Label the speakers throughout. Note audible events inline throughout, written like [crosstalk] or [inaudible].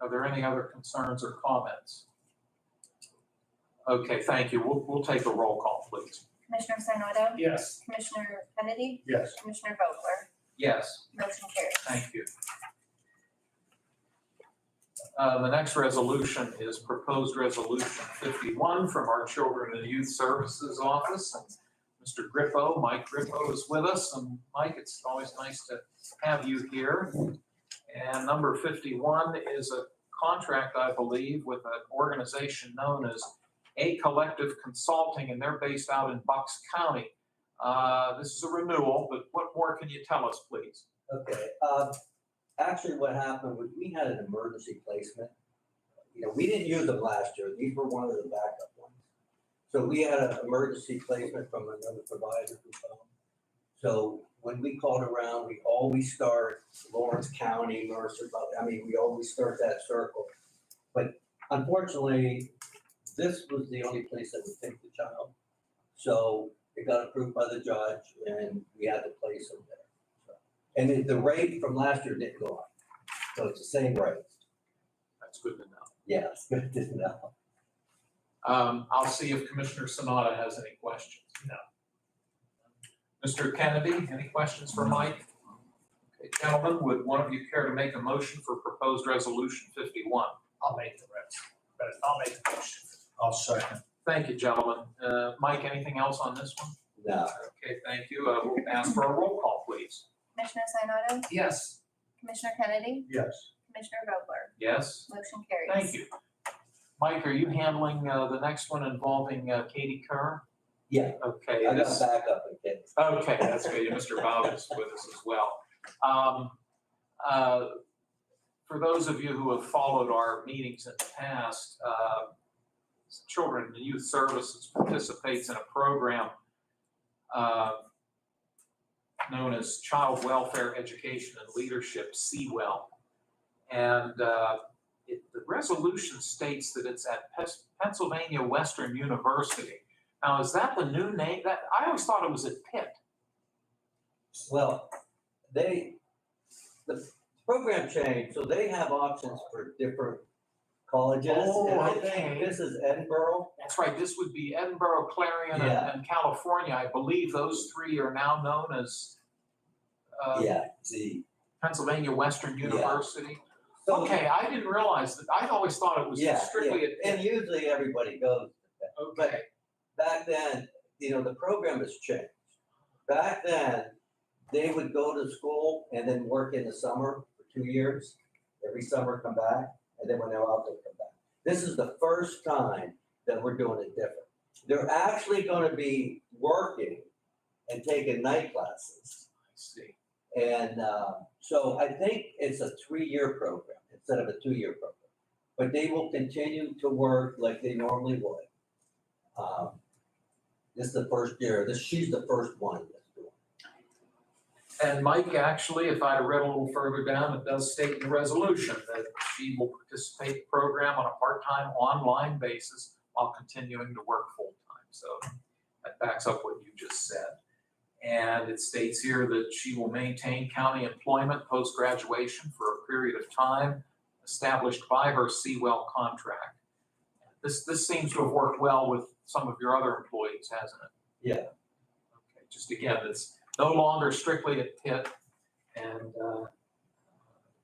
Speaker 1: Are there any other concerns or comments? Okay, thank you. We'll, we'll take a roll call, please.
Speaker 2: Commissioner Sinata?
Speaker 3: Yes.
Speaker 2: Commissioner Kennedy?
Speaker 3: Yes.
Speaker 2: Commissioner Vogler?
Speaker 1: Yes.
Speaker 2: Motion carries.
Speaker 1: Thank you. Uh, The next resolution is proposed resolution 51 from our Children and Youth Services Office. and Mr. Grippo, Mike Grippo is with us, and Mike, it's always nice to have you here. And number 51 is a contract, I believe, with an organization known as A Collective Consulting, and they're based out in Bucks County. Uh, This is a renewal, but what more can you tell us, please?
Speaker 4: Okay, uh, actually what happened was we had an emergency placement. You know, we didn't use them last year. These were one of the backup ones. So we had an emergency placement from another provider who phoned. So when we called around, we always start Lawrence County, Mercer, but, I mean, we always start that circle. But unfortunately, this was the only place that would take the child. So it got approved by the judge and we had to place them there. So and the, the rate from last year didn't go up, so it's the same rate.
Speaker 1: That's good to know.
Speaker 4: Yeah, it's [laughs] good to know.
Speaker 1: Um, I'll see if Commissioner Sanada has any questions. No. Mr. Kennedy, any questions for Mike? Okay, Gentlemen, would one of you care to make a motion for proposed resolution fifty-one?
Speaker 3: I'll make the rest, but I'll make the motion. I'll second.
Speaker 1: Thank you, gentlemen. Uh, Mike, anything else on this one?
Speaker 4: No,
Speaker 1: Okay, thank you. Uh, we'll ask for a roll call, please.
Speaker 2: Commissioner Sinata?
Speaker 3: Yes.
Speaker 2: Commissioner Kennedy?
Speaker 3: Yes.
Speaker 2: Commissioner Vogler?
Speaker 1: Yes?
Speaker 2: Motion carries.
Speaker 1: Thank you. Mike, are you handling, uh, the next one involving, uh, Katie Kerr?
Speaker 4: yeah, I
Speaker 1: Okay,
Speaker 4: got
Speaker 1: this-
Speaker 4: backup again.
Speaker 1: Okay, that's good. Mr. Bob is with us as well. Um, uh, For those of you who have followed our meetings in the past, uh, Children and Youth Services participates in a program uh, known as Child Welfare Education and Leadership, CWEL. And uh, it- the resolution states that it's at Pes- Pennsylvania Western University. Now, is that the new name? That, I always thought it was at Pitt.
Speaker 4: Well, they, the program changed, so they have options for different colleges.
Speaker 1: Oh,
Speaker 4: And I think
Speaker 1: okay.
Speaker 4: this is Edinburgh.
Speaker 1: That's right, this would be Edinburgh, Clarion, and-
Speaker 4: Yeah.
Speaker 1: and California. I believe those three are now known as uh,
Speaker 4: Yeah, the,
Speaker 1: Pennsylvania Western
Speaker 4: Yeah.
Speaker 1: University.
Speaker 4: so,
Speaker 1: Okay, I didn't realize that, I always thought it was
Speaker 4: Yeah,
Speaker 1: strictly at
Speaker 4: and
Speaker 1: Pitt.
Speaker 4: usually everybody goes.
Speaker 1: Okay,
Speaker 4: Back then, you know, the program has changed. Back then, they would go to school and then work in the summer for two years, every summer come back, and then when they're out, they come back. This is the first time that we're doing it different. They're actually gonna be working and taking night classes.
Speaker 1: I see.
Speaker 4: And, uh, so I think it's a three-year program instead of a two-year program. But they will continue to work like they normally would. Um, This is the first year, this, she's the first one that's doing it.
Speaker 1: And Mike, actually, if I read a little further down, it does state in the resolution that she will participate in the program on a part-time, online basis while continuing to work full-time. So that backs up what you just said. And it states here that she will maintain county employment post-graduation for a period of time established by her Seawell contract. This, this seems to have worked well with some of your other employees, hasn't it?
Speaker 4: Yeah.
Speaker 1: Okay, just again, it's no longer strictly at Pitt, and uh,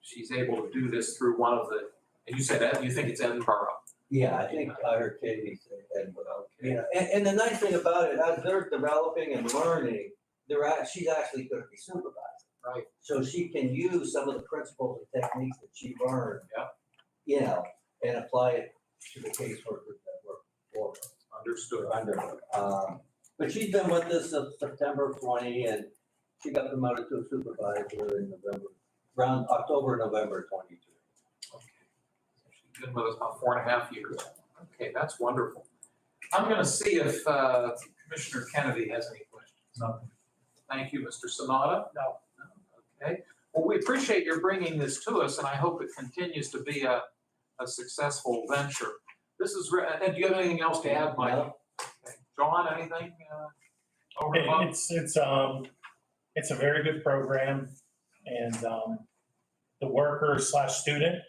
Speaker 1: she's able to do this through one of the, and you said that, you think it's Edinburgh.
Speaker 4: Yeah, I think I heard Katie say that, but, you know, and, and the nice thing about it, as they're developing and learning, they're act, she's actually gonna be supervising.
Speaker 1: Right.
Speaker 4: So she can use some of the principles and techniques that she learned.
Speaker 1: Yeah.
Speaker 4: You know, and apply it to the caseworkers that work for her,
Speaker 1: Understood.
Speaker 4: or under her. Um, but she's been with us since September twenty, and she got promoted to a supervisor in November, around October, November twenty-two.
Speaker 1: Okay. She's been with us about four and a half years. Okay, that's wonderful. I'm going to see if uh, Commissioner Kennedy has any questions.
Speaker 3: Nothing.
Speaker 1: Thank you, Mr. Sanada.
Speaker 3: No.
Speaker 1: Okay. Well, we appreciate your bringing this to us, and I hope it continues to be a, a successful venture. This is, re- and do you have anything else to add, Mike?
Speaker 4: No.
Speaker 1: Okay. John, anything uh, over
Speaker 5: It-
Speaker 1: above?
Speaker 5: It's, it's, um, it's a very good program and, um, the worker slash student